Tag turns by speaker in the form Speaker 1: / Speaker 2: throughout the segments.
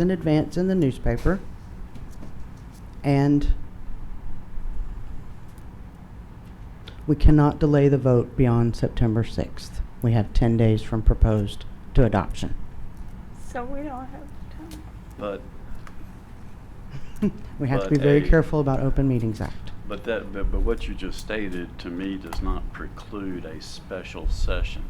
Speaker 1: in advance in the newspaper. And we cannot delay the vote beyond September 6th. We have 10 days from proposed to adoption.
Speaker 2: So we don't have time.
Speaker 3: But,
Speaker 1: We have to
Speaker 3: But
Speaker 1: be very
Speaker 3: a-
Speaker 1: careful about Open Meetings Act.
Speaker 3: but that, but, but what you just stated to me does not preclude a special session.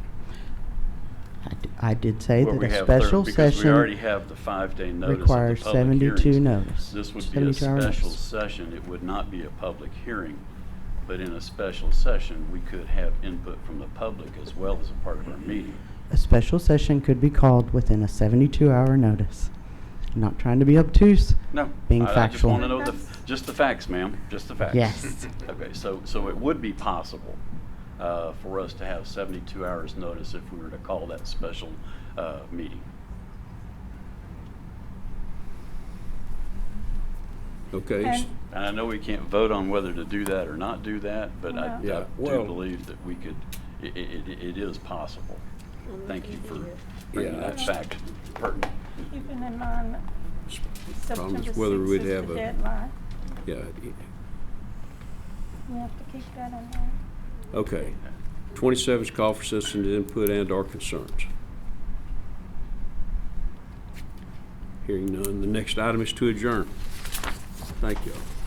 Speaker 1: I d- I did say
Speaker 3: where
Speaker 1: that
Speaker 3: we
Speaker 1: a
Speaker 3: have thir-
Speaker 1: special
Speaker 3: Because we already
Speaker 1: session
Speaker 3: have the five-day notice of the
Speaker 1: requires
Speaker 3: public
Speaker 1: 72
Speaker 3: hearings.
Speaker 1: notice.
Speaker 3: This would be a
Speaker 1: 72 hour notice.
Speaker 3: special session, it would not be a public hearing, but in a special session, we could have input from the public as well as a part of our meeting.
Speaker 1: A special session could be called within a 72-hour notice. I'm Not trying to be obtuse.
Speaker 3: No.
Speaker 1: Being
Speaker 3: I-
Speaker 1: factual.
Speaker 3: I just want to know the, just the facts, ma'am, just the facts.
Speaker 1: Yes.
Speaker 3: Okay, so, so it would be possible uh, for us to have 72 hours' notice if we were to call that special uh, meeting.
Speaker 4: Okay, s-
Speaker 2: And-
Speaker 3: And I know we can't vote on whether to do that or not do that, but I I
Speaker 2: No.
Speaker 4: Yeah,
Speaker 3: do
Speaker 4: well-
Speaker 3: believe that we could, i- i- i- it is possible. Thank you for bringing
Speaker 4: Yeah,
Speaker 3: that
Speaker 4: I-
Speaker 3: fact pertinent.
Speaker 2: Even in mind,
Speaker 4: s- problem
Speaker 2: September
Speaker 4: is
Speaker 2: 6th
Speaker 4: whether we'd
Speaker 2: is the
Speaker 4: have a,
Speaker 2: deadline.
Speaker 4: yeah,
Speaker 2: We have to keep that in mind.
Speaker 4: okay. Twenty-seven is call for citizens input and our concerns. Hearing none, the next item is to adjourn. Thank you all.